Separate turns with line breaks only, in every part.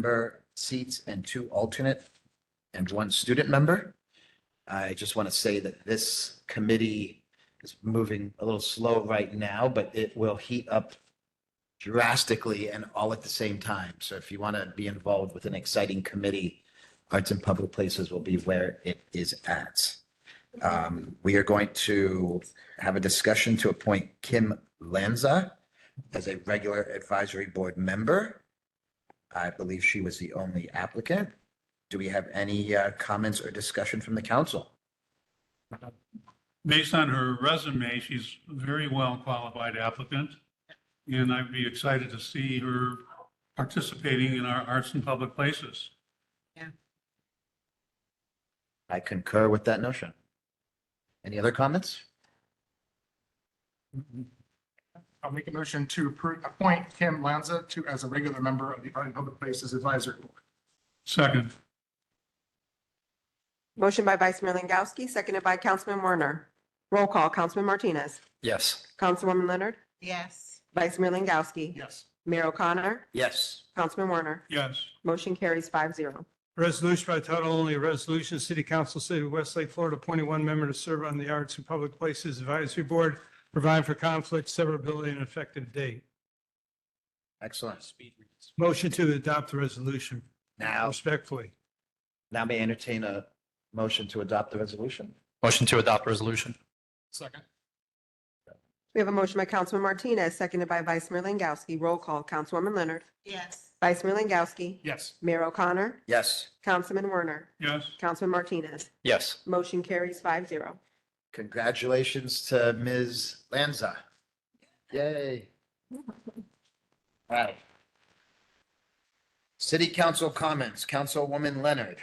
member seats and two alternate and one student member. I just want to say that this committee is moving a little slow right now, but it will heat up drastically and all at the same time. So if you want to be involved with an exciting committee, Arts and Public Places will be where it is at. Um, we are going to have a discussion to appoint Kim Lanza as a regular advisory board member. I believe she was the only applicant. Do we have any uh, comments or discussion from the council?
based on her resume, she's a very well qualified applicant. And I'd be excited to see her participating in our arts and public places.
I concur with that notion. Any other comments?
I'll make a motion to appro- appoint Kim Lanza to, as a regular member of the Art and Public Places Advisory Board.
Second,
Motion by Vice Mayor Langowski, seconded by Councilman Werner. Roll call, Councilman Martinez.
Yes.
Councilwoman Leonard.
yes,
Vice Mayor Langowski.
Yes.
Mayor O'Connor.
Yes.
Councilman Werner.
yes,
Motion carries five zero.
Resolution by title only, a resolution, City Council, City of Westlake, Florida, appointing one member to serve on the Arts and Public Places Advisory Board, providing for conflict, severability, and effective date.
Excellent.
Motion to adopt the resolution
Now,
respectfully.
now may I entertain a motion to adopt the resolution?
Motion to adopt resolution.
Second.
We have a motion by Councilman Martinez, seconded by Vice Mayor Langowski. Roll call, Councilwoman Leonard.
yes,
Vice Mayor Langowski.
Yes.
Mayor O'Connor.
Yes.
Councilman Werner.
yes,
Councilman Martinez.
Yes.
Motion carries five zero.
Congratulations to Ms. Lanza. Yay. All right. City Council comments, Councilwoman Leonard.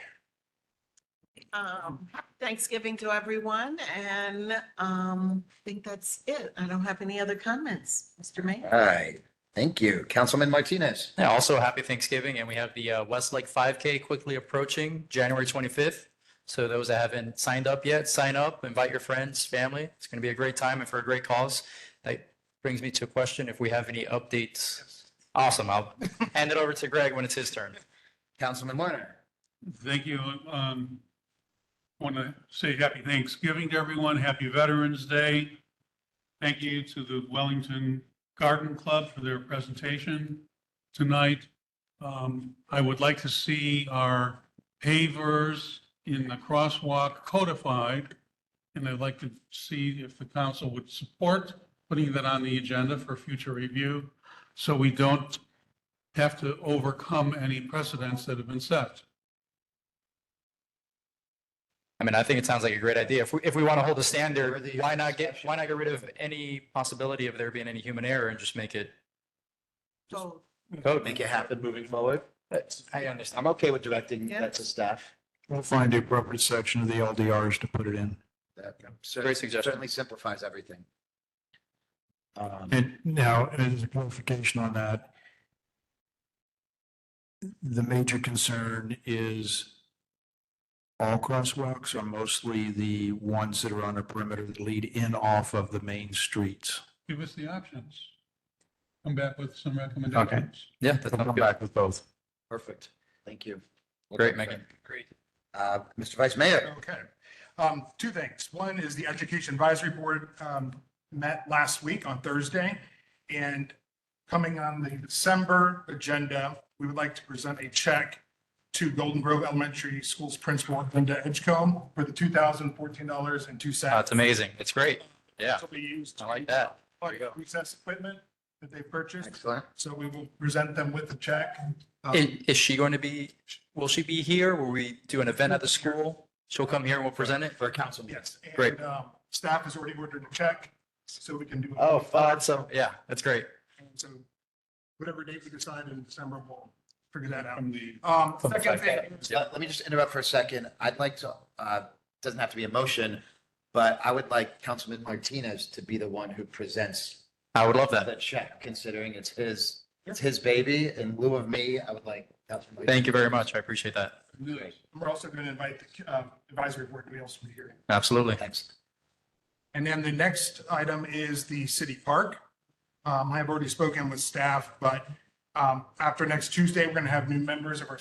um, happy Thanksgiving to everyone, and, um, I think that's it. I don't have any other comments, Mr. Mayor.
All right, thank you. Councilman Martinez.
Yeah, also happy Thanksgiving, and we have the uh, Westlake 5K quickly approaching, January 25th. So those that haven't signed up yet, sign up, invite your friends, family. It's going to be a great time and for a great cause. That brings me to a question, if we have any updates. Awesome, I'll hand it over to Greg when it's his turn.
Councilman Werner.
thank you. Um, want to say happy Thanksgiving to everyone, happy Veterans Day. Thank you to the Wellington Garden Club for their presentation tonight. Um, I would like to see our pavers in the crosswalk codified. And I'd like to see if the council would support putting that on the agenda for future review so we don't have to overcome any precedents that have been set.
I mean, I think it sounds like a great idea. If we, if we want to hold a standard, why not get, why not get rid of any possibility of there being any human error and just make it
So,
code?
Make it happen moving forward.
I understand.
I'm okay with directing
Yeah.
that to staff.
We'll find the appropriate section of the LDRs to put it in.
That
Great
cer-
suggestion.
certainly simplifies everything. Um,
And now, as a clarification on that, the major concern is all crosswalks are mostly the ones that are on the perimeter that lead in off of the main streets.
give us the options. Come back with some recommendations.
Yeah, that
We'll
sounds
come
good.
back with both.
Perfect, thank you.
Great, Megan. Great.
Uh, Mr. Vice Mayor,
Okay. Um, two things. One is the Education Advisory Board, um, met last week on Thursday. And coming on the December agenda, we would like to present a check to Golden Grove Elementary School's principal, Linda Edgecombe, for the two thousand fourteen dollars and two cents.
That's amazing. It's great. Yeah,
This will be used.
I like that. There you go.
Recess equipment that they purchased.
excellent.
So we will present them with the check. Um,
Is, is she going to be, will she be here? Will we do an event at the school? She'll come here and we'll present it? For a council
Yes. and,
Great.
um, Staff has already ordered a check, so we can do.
Oh, fun.
So, yeah, that's great.
And So whatever date we decide in December, we'll figure that out.
From the,
Um,
From the
second
fact
thing,
uh, Let let me just interrupt for a second. I'd like to, uh, doesn't have to be a motion, but I would like Councilman Martinez to be the one who presents
I would love that.
the check, considering it's his, it's his baby. In lieu of me, I would like. Councilman
Thank you very much. I appreciate that.
we're also going to invite the uh, advisory board to be also be here.
Absolutely.
Thanks.
And then the next item is the city park. Um, I have already spoken with staff, but um, Um, after next Tuesday, we're gonna have new members of our